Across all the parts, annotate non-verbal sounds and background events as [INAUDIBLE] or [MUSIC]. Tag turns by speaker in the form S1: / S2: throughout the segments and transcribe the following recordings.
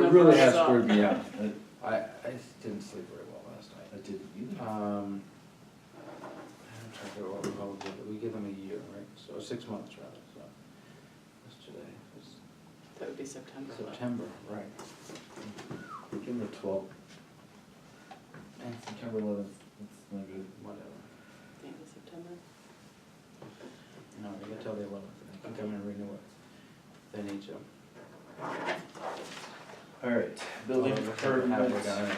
S1: really
S2: first
S1: has
S2: up.
S1: screwed me up.
S3: [LAUGHS] I
S1: I, I just didn't sleep very well last night.
S3: I didn't either.
S1: Um, I'm trying to figure out what we call it, we give them a year, right, so six months rather, so. What's today, it's
S2: That would be September.
S1: September, right.
S3: Give him the twelfth. And September eleventh, that's not good.
S1: Whatever,
S2: The end of September.
S1: no, we got till the eleventh, I think I'm gonna renew it. They need to.
S3: All right, building
S1: Although that's not halfway
S3: permits,
S1: done anyway,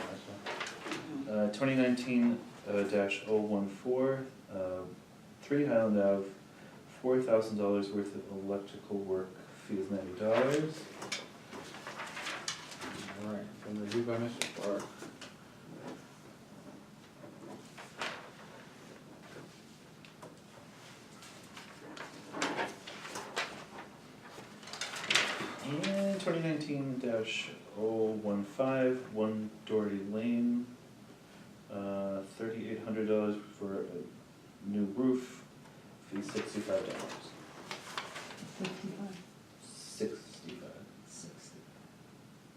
S1: so.
S2: Mhm.
S3: uh, twenty nineteen, uh, dash oh one four, uh, three Highland Ave, four thousand dollars worth of electrical work, fee is ninety dollars.
S1: All right, been reviewed by Mr. Clark.
S3: And twenty nineteen dash oh one five, one Doherty Lane, uh, thirty-eight hundred dollars for a new roof, fee sixty-five dollars. Sixty-five. Sixty.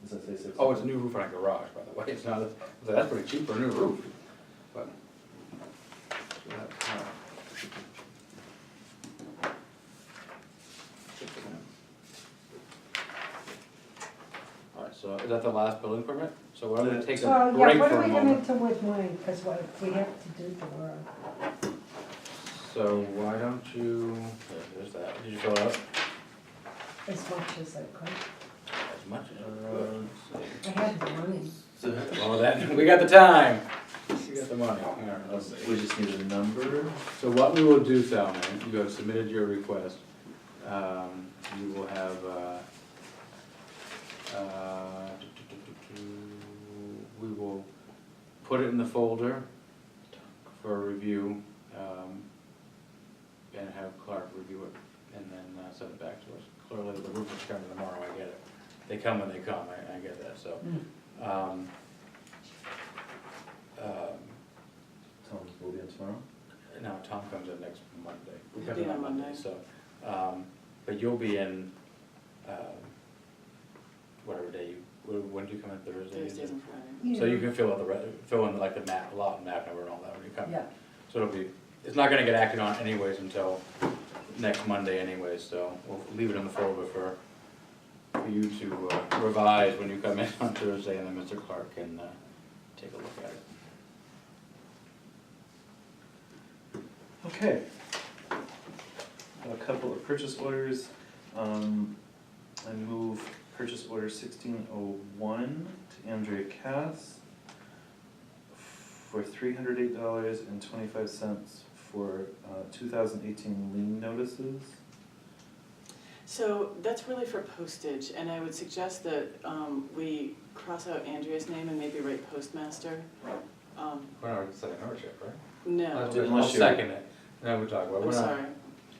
S3: Does that say sixty?
S1: Oh, it's a new roof on a garage, by the way, [LAUGHS] it's not, a- so that's pretty cheap for a new roof, but. so that's, uh, six of them. All right, so is that the last building permit? So why don't we take a
S4: Well, yeah,
S1: break
S4: what
S1: for a
S4: are we gonna
S1: moment?
S4: do with mine, cause what, we have to do tomorrow.
S1: So why don't you, there's that, did you fill it out?
S4: as much as I could.
S1: As much as
S3: Uh,
S4: I had the money.
S3: so,
S1: Well, then, [LAUGHS] we got the time. We got the money, all right,
S3: uh,
S1: let's see.
S3: we just need a number,
S1: So what we will do, Salman, you have submitted your request, um, you will have, uh, uh, we will put it in the folder for review, um, and have Clark review it, and then uh, send it back to us. Clearly, the roof is coming tomorrow, I get it, they come when they come, I, I get that, so. um, um,
S3: Tom's will be in tomorrow.
S1: no, Tom comes in next Monday. We
S2: He'll
S1: come
S2: be
S1: in
S2: on
S1: on Monday,
S2: Monday.
S1: so, um, but you'll be in, um, whatever day you, when when do you come in Thursday? is it?
S2: Thursdays and Fridays.
S4: Yeah.
S1: So you can fill out the, re- fill in like the map, lot map number and all that when you come.
S4: Yeah,
S1: So it'll be, it's not gonna get acted on anyways until next Monday anyways, so we'll leave it in the folder for for you to uh, revise when you come in [LAUGHS] on Thursday, and then Mr. Clark can uh, take a look at it.
S3: Okay. Have A couple of purchase orders. Um, I move purchase order sixteen oh one to Andrea Cass for three hundred eight dollars and twenty-five cents for, uh, two thousand eighteen lien notices.
S2: So that's really for postage, and I would suggest that um, we cross out Andrea's name and maybe write postmaster. Um,
S1: We're not setting ownership, right?
S2: No,
S1: I'll do- I'll
S3: Unless you-
S1: second it, then we talk about, it.
S2: I'm
S1: we're not.
S2: sorry.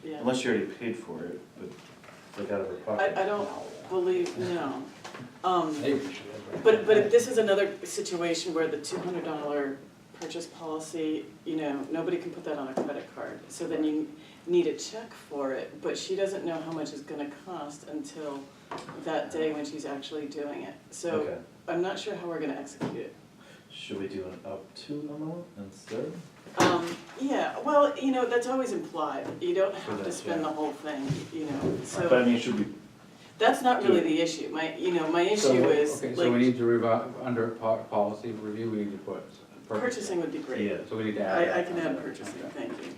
S2: Yeah,
S3: Unless you already paid for it, but like out of her
S2: I,
S3: pocket.
S2: I don't believe, no. Um,
S1: Maybe we should. have it.
S2: But, but if this is another situation where the two hundred dollar purchase policy, you know, nobody can put that on a credit card. So then you need a check for it, but she doesn't know how much it's gonna cost until that day when she's actually doing it. So
S3: Okay,
S2: I'm not sure how we're gonna execute it.
S3: should we do an up to amount instead?
S2: Um, yeah, well, you know, that's always implied. You don't have to
S3: that,
S2: spend the
S3: yeah.
S2: whole thing, you know,
S3: But I
S2: so
S3: mean, should we,
S2: that's not really the issue. My, you know, my
S1: So,
S2: issue is
S1: Okay, so we
S2: like
S1: need to revi under po- policy review, we need to put. purchase.
S2: purchasing would be
S3: yeah,
S2: great.
S1: So we need to add.
S2: I, I
S1: that
S2: can
S1: on
S2: add
S1: there.
S2: purchasing,
S1: Okay.
S2: thank you.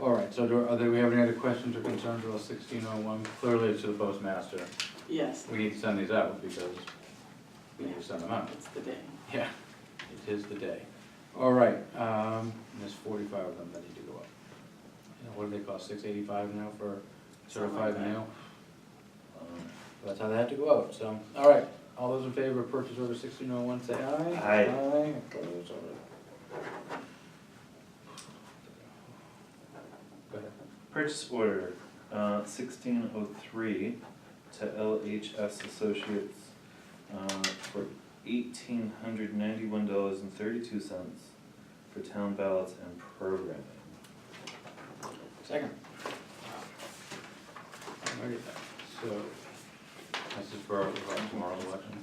S1: All right, so do, are there, we have any other questions or concerns about sixteen oh one? Clearly it's to the postmaster.
S2: Yes,
S1: We need to send these out because we need to send them out.
S2: it's the day.
S1: Yeah, it is the day. All right, um, there's forty-five of them that need to go up. And what do they cost, six eighty-five now for certified
S2: Something like that.
S1: mail?
S3: um,
S1: That's how they had to go out, so, all right, all those in favor of purchase order sixteen oh one, say aye.
S3: Aye.
S1: Aye, opposed, all right. Go ahead.
S3: Purchase order, uh, sixteen oh three to LHS Associates, uh, for eighteen hundred ninety-one dollars and thirty-two cents for town ballots and programming.
S1: Second. Alrighty, so, this is for uh, tomorrow's election.